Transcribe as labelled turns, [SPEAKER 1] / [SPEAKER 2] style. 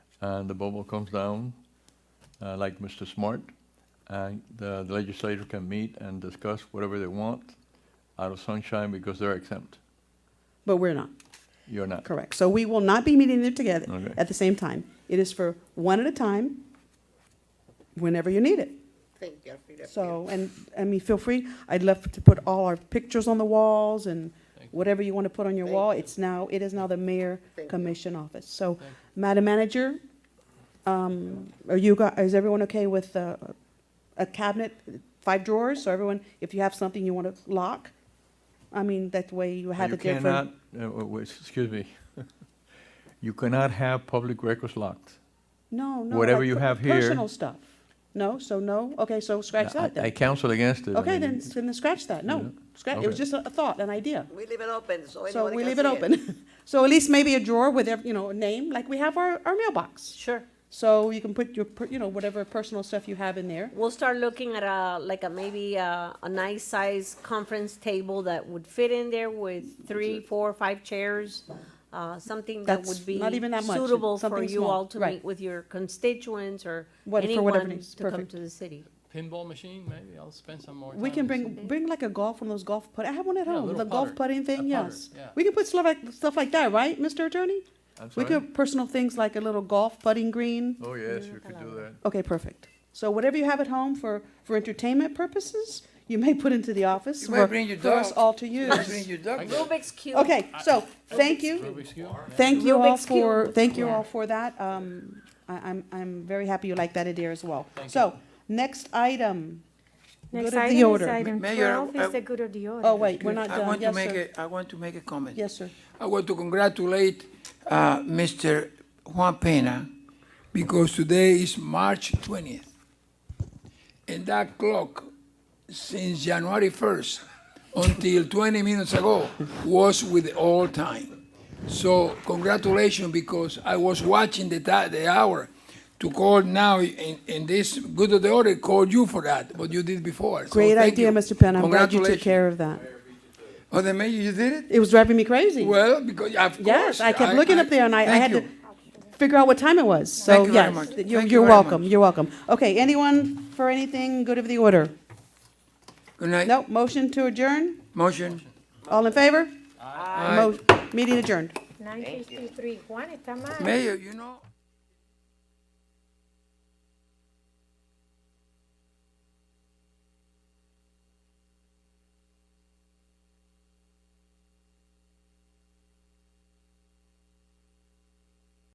[SPEAKER 1] and Uh, the bubble comes down, uh, like Mr. Smart, and the legislature can meet and discuss whatever they want out of sunshine because they're exempt.
[SPEAKER 2] But we're not,
[SPEAKER 1] You're not.
[SPEAKER 2] correct. So we will not be meeting there together
[SPEAKER 1] Okay.
[SPEAKER 2] at the same time. It is for one at a time, whenever you need it.
[SPEAKER 3] Thank you, Alfreda.
[SPEAKER 2] So, and, I mean, feel free, I'd love to put all our pictures on the walls and whatever you want to put on your
[SPEAKER 3] Thank
[SPEAKER 2] wall.
[SPEAKER 3] you.
[SPEAKER 2] It's now, it is now the mayor
[SPEAKER 3] Thank you.
[SPEAKER 2] commission office. So, Madam Manager, um, are you, go- is everyone okay with uh, a cabinet, five drawers? So everyone, if you have something you want to lock, I mean, that way you have
[SPEAKER 1] You
[SPEAKER 2] it there for.
[SPEAKER 1] cannot, uh, w- w- excuse me, you cannot have public records locked.
[SPEAKER 2] No, no.
[SPEAKER 1] whatever
[SPEAKER 2] like
[SPEAKER 1] you
[SPEAKER 2] per-
[SPEAKER 1] have here-
[SPEAKER 2] Personal stuff. No, so no? Okay, so scratch
[SPEAKER 1] I- I
[SPEAKER 2] that then.
[SPEAKER 1] counsel against it. I
[SPEAKER 2] Okay,
[SPEAKER 1] mean,
[SPEAKER 2] then, then scratch that. No, scratch, it was
[SPEAKER 1] Okay.
[SPEAKER 2] just a a thought, an idea.
[SPEAKER 3] We leave it open, so anyone can see it.
[SPEAKER 2] So we leave it open. So at least maybe a drawer with, ev- you know, a name, like we have our, our mailbox.
[SPEAKER 4] Sure.
[SPEAKER 2] So you can put your, per- you know, whatever personal stuff you have in there.
[SPEAKER 4] We'll start looking at a, like a, maybe a, a nice size conference table that would fit in there with three, four, five chairs. Uh, something that
[SPEAKER 2] That's
[SPEAKER 4] would be
[SPEAKER 2] not even that much,
[SPEAKER 4] suitable for
[SPEAKER 2] something
[SPEAKER 4] you
[SPEAKER 2] small,
[SPEAKER 4] all to
[SPEAKER 2] right.
[SPEAKER 4] meet with your constituents or
[SPEAKER 2] What- for whatever
[SPEAKER 4] anyone
[SPEAKER 2] needs,
[SPEAKER 4] to come
[SPEAKER 2] perfect.
[SPEAKER 4] to the city.
[SPEAKER 5] pinball machine, maybe I'll spend some more time.
[SPEAKER 2] We can
[SPEAKER 5] with-
[SPEAKER 2] bring, bring like a golf, one of those golf put, I have one at
[SPEAKER 5] Yeah, a
[SPEAKER 2] home,
[SPEAKER 5] little
[SPEAKER 2] the golf
[SPEAKER 5] putter,
[SPEAKER 2] putting thing,
[SPEAKER 5] a putter,
[SPEAKER 2] yes.
[SPEAKER 5] yeah.
[SPEAKER 2] We can put stuff like, stuff like that, right, Mr. Attorney?
[SPEAKER 1] I'm
[SPEAKER 2] We
[SPEAKER 1] sorry?
[SPEAKER 2] could, personal things like a little golf putting green.
[SPEAKER 1] Oh, yes, you could do that.
[SPEAKER 2] Okay, perfect. So whatever you have at home for, for entertainment purposes, you may put into the office
[SPEAKER 6] You
[SPEAKER 2] for,
[SPEAKER 6] might bring your
[SPEAKER 2] for us
[SPEAKER 6] dog.
[SPEAKER 2] all to
[SPEAKER 6] Just bring
[SPEAKER 2] use.
[SPEAKER 6] your duck.
[SPEAKER 4] Rubik's Cube.
[SPEAKER 2] Okay, so, thank you.
[SPEAKER 5] Rubik's Cube?
[SPEAKER 2] Thank you all
[SPEAKER 4] Rubik's Cube.
[SPEAKER 2] for, thank you all
[SPEAKER 4] Yeah.
[SPEAKER 2] for that. Um, I, I'm, I'm very happy you like that idea as well. So, next item. Good of
[SPEAKER 7] Next
[SPEAKER 2] the
[SPEAKER 7] item is
[SPEAKER 2] order.
[SPEAKER 7] item
[SPEAKER 6] Mayor,
[SPEAKER 7] twelve,
[SPEAKER 6] I-
[SPEAKER 7] is the good of the order.
[SPEAKER 2] Oh, wait, we're not
[SPEAKER 6] I
[SPEAKER 2] done.
[SPEAKER 6] want to
[SPEAKER 2] Yes,
[SPEAKER 6] make
[SPEAKER 2] sir.
[SPEAKER 6] a, I want to make a comment.
[SPEAKER 2] Yes, sir.
[SPEAKER 6] I want to congratulate uh, Mr. Juan Pena because today is March 20th. And that clock, since January 1st until 20 minutes ago, was with all time. So congratulations because I was watching the, ti- the hour to call now in, in this good of the order, call you for that, what you did before. So
[SPEAKER 2] Great
[SPEAKER 6] thank
[SPEAKER 2] idea,
[SPEAKER 6] you.
[SPEAKER 2] Mr. Penn. I'm glad you took
[SPEAKER 6] Congratulations.
[SPEAKER 2] care of that.
[SPEAKER 6] Oh, the mayor, you did it?
[SPEAKER 2] It was driving me crazy.
[SPEAKER 6] Well, because of
[SPEAKER 2] Yes,
[SPEAKER 6] course.
[SPEAKER 2] I kept looking up there and I, I
[SPEAKER 6] thank
[SPEAKER 2] had to
[SPEAKER 6] you.
[SPEAKER 2] figure out what time it was. So,
[SPEAKER 6] Thank you very
[SPEAKER 2] yes,
[SPEAKER 6] much.
[SPEAKER 2] you're,
[SPEAKER 6] Thank you
[SPEAKER 2] you're
[SPEAKER 6] very
[SPEAKER 2] welcome,
[SPEAKER 6] much.
[SPEAKER 2] you're welcome. Okay, anyone for anything good of the order?
[SPEAKER 6] Good night.
[SPEAKER 2] Nope, motion to adjourn?
[SPEAKER 6] Motion.
[SPEAKER 2] All in favor?
[SPEAKER 6] Aye.
[SPEAKER 2] Mo- Meeting adjourned.
[SPEAKER 7] Nine fifty-three, Juan, está mal.
[SPEAKER 6] Mayor, you know.